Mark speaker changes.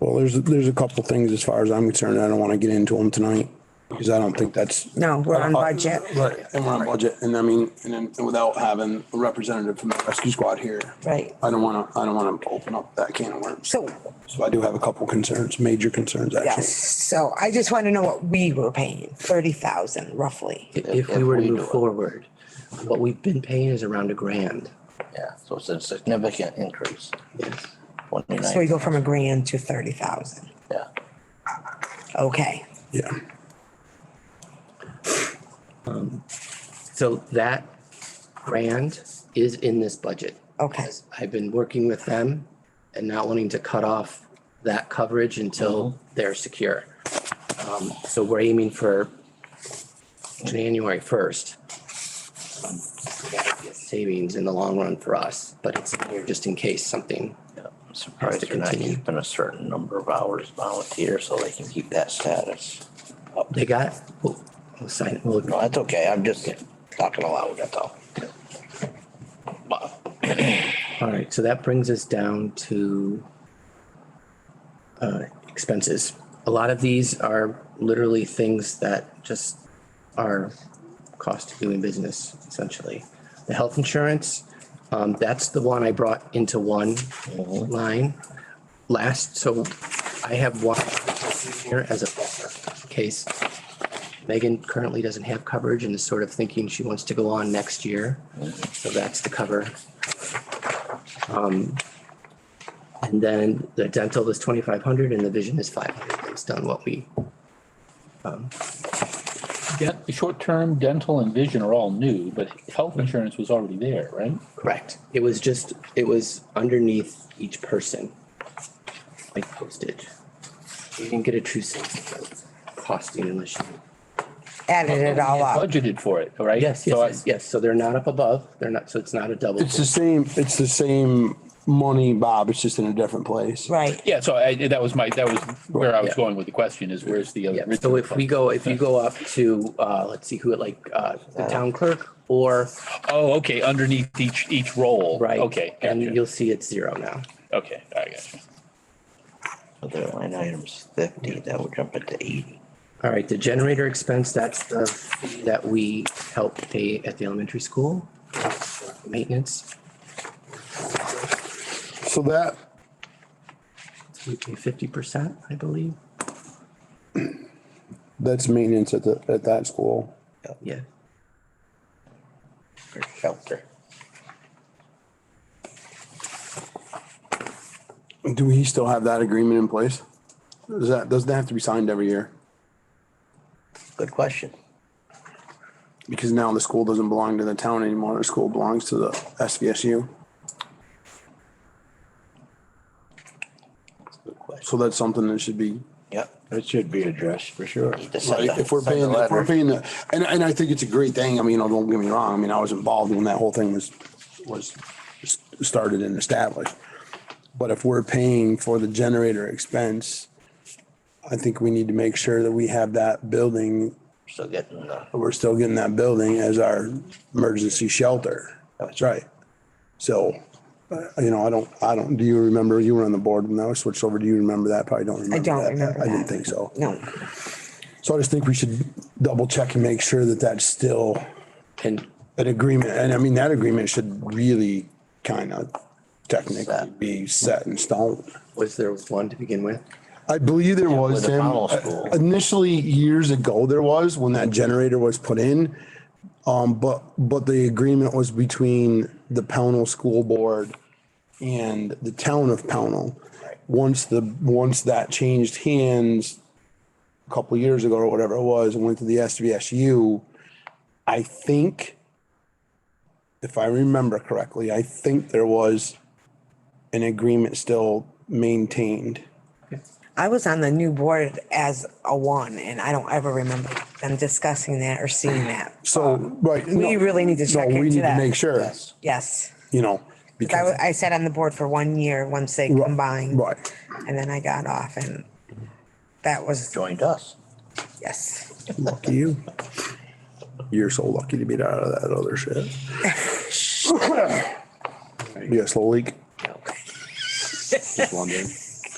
Speaker 1: Well, there's, there's a couple things as far as I'm concerned. I don't want to get into them tonight because I don't think that's.
Speaker 2: No, we're on
Speaker 1: Uh-huh.
Speaker 2: budget.
Speaker 1: Right, and we're on budget. And I mean, and then without having a representative from the rescue squad here.
Speaker 2: Right.
Speaker 1: I don't want to, I don't want to open up that can of worms.
Speaker 2: So,
Speaker 1: So I do have a couple concerns, major concerns actually.
Speaker 2: yes, so I just want to know what we were paying, thirty thousand roughly.
Speaker 3: If we were to move forward, what we've been paying is around a grand.
Speaker 4: Yeah, so it's a significant increase,
Speaker 3: Yes.
Speaker 2: So we
Speaker 4: twenty-nine,
Speaker 2: go from a grand to thirty thousand.
Speaker 4: yeah.
Speaker 2: Okay,
Speaker 1: Yeah.
Speaker 3: So that grand is in this budget.
Speaker 2: okay,
Speaker 3: I've been working with them and not wanting to cut off that coverage until they're secure. Um, So we're aiming for January first. Um, Savings in the long run for us, but it's here just in case something.
Speaker 4: Yeah, I'm
Speaker 3: Has
Speaker 4: Surprised
Speaker 3: to
Speaker 4: they're not
Speaker 3: continue.
Speaker 4: keeping a certain number of hours volunteer so they can keep that status. up.
Speaker 3: They got, we'll we'll sign, it.
Speaker 4: No,
Speaker 3: we'll,
Speaker 4: that's okay, I'm just talking aloud, that's all. But
Speaker 3: all right, so that brings us down to uh, expenses. A lot of these are literally things that just are cost of doing business essentially. The health insurance, um, that's the one I brought into one line last, so I have one here as a case. Megan currently doesn't have coverage and is sort of thinking she wants to go on next year, so that's the cover. Um, And then the dental is twenty-five hundred and the vision is five hundred based on what we
Speaker 5: Dent- short-term dental and vision are all new, but
Speaker 3: Mm.
Speaker 5: health insurance was already there, right?
Speaker 3: Correct. It was just, it was underneath each person, like postage. You didn't get a true sense of what it's costing unless you.
Speaker 2: added it all up.
Speaker 5: Budgeted for it, right?
Speaker 3: Ah. Yes,
Speaker 5: So I-
Speaker 3: yes, yes. So they're not up above. They're not, so it's not a double.
Speaker 1: It's the same, it's the same money, Bob. It's just in a different place.
Speaker 2: Right,
Speaker 5: Yeah, so I, that was my, that was where I was
Speaker 3: Yeah.
Speaker 5: going with the question is where's the
Speaker 3: Yeah,
Speaker 5: original?
Speaker 3: so if we go, if you go up to, uh, let's see who it like, uh, the town clerk or,
Speaker 5: Oh, okay, underneath each, each role.
Speaker 3: right?
Speaker 5: Okay,
Speaker 3: And
Speaker 5: gotcha.
Speaker 3: you'll see it's zero now.
Speaker 5: okay, I got you.
Speaker 4: Other line items fifty, that would jump it to eighty.
Speaker 3: All right, the generator expense, that's the, fee that we help pay at the elementary school. Maintenance,
Speaker 1: So that,
Speaker 3: we pay fifty percent, I believe.
Speaker 1: that's maintenance at the, at that school.
Speaker 3: Yeah.
Speaker 4: for shelter.
Speaker 1: Do we still have that agreement in place? Does that, doesn't that have to be signed every year?
Speaker 4: Good question.
Speaker 1: Because now the school doesn't belong to the town anymore. The school belongs to the SVSU.
Speaker 4: Good question.
Speaker 1: So that's something that should be,
Speaker 4: Yep.
Speaker 6: It should be addressed for sure.
Speaker 4: Need to send the-
Speaker 1: if we're
Speaker 4: send the
Speaker 1: paying, if we're
Speaker 4: letter.
Speaker 1: paying the, and, and I think it's a great thing. I mean, oh, don't get me wrong. I mean, I was involved when that whole thing was, was s- started and established. But if we're paying for the generator expense, I think we need to make sure that we have that building
Speaker 4: Still getting the.
Speaker 1: but we're still getting that building as our emergency shelter. That's right. So, uh, you know, I don't, I don't, do you remember, you were on the board when that was switched over, do you remember that? Probably don't remember.
Speaker 2: don't
Speaker 1: that.
Speaker 2: remember
Speaker 1: I didn't
Speaker 2: that.
Speaker 1: think so.
Speaker 2: no,
Speaker 1: So I just think we should double check and make sure that that's still
Speaker 3: And
Speaker 1: an agreement. And I mean, that agreement should really kind of technically be set in stone.
Speaker 3: was there one to begin with?
Speaker 1: I believe there
Speaker 4: with
Speaker 1: was,
Speaker 4: the
Speaker 1: Tim.
Speaker 4: funnel school.
Speaker 1: Initially, years ago, there was when that generator was put in. Um, but, but the agreement was between the Pownell School Board and the town of Pownell. Once the, once that changed hands a couple years ago or whatever it was, and went to the SVSU, I think, if I remember correctly, I think there was an agreement still maintained.
Speaker 2: I was on the new board as a one and I don't ever remember them discussing that or seeing that.
Speaker 1: So, right.
Speaker 2: Um, We
Speaker 1: no,
Speaker 2: really need to
Speaker 1: No,
Speaker 2: check
Speaker 1: we
Speaker 2: into
Speaker 1: need to
Speaker 2: that.
Speaker 1: make sure,
Speaker 2: Yes,
Speaker 1: you know,
Speaker 2: 'Cause I,
Speaker 1: because,
Speaker 2: wa- I sat on the board for one year once they
Speaker 1: Right,
Speaker 2: combined.
Speaker 1: right,
Speaker 2: And then I got off and that was,
Speaker 4: Joined us.
Speaker 2: yes.
Speaker 1: lucky you. You're so lucky to be out of that other shit. You got a slow leak?
Speaker 3: No.
Speaker 1: Just wondering.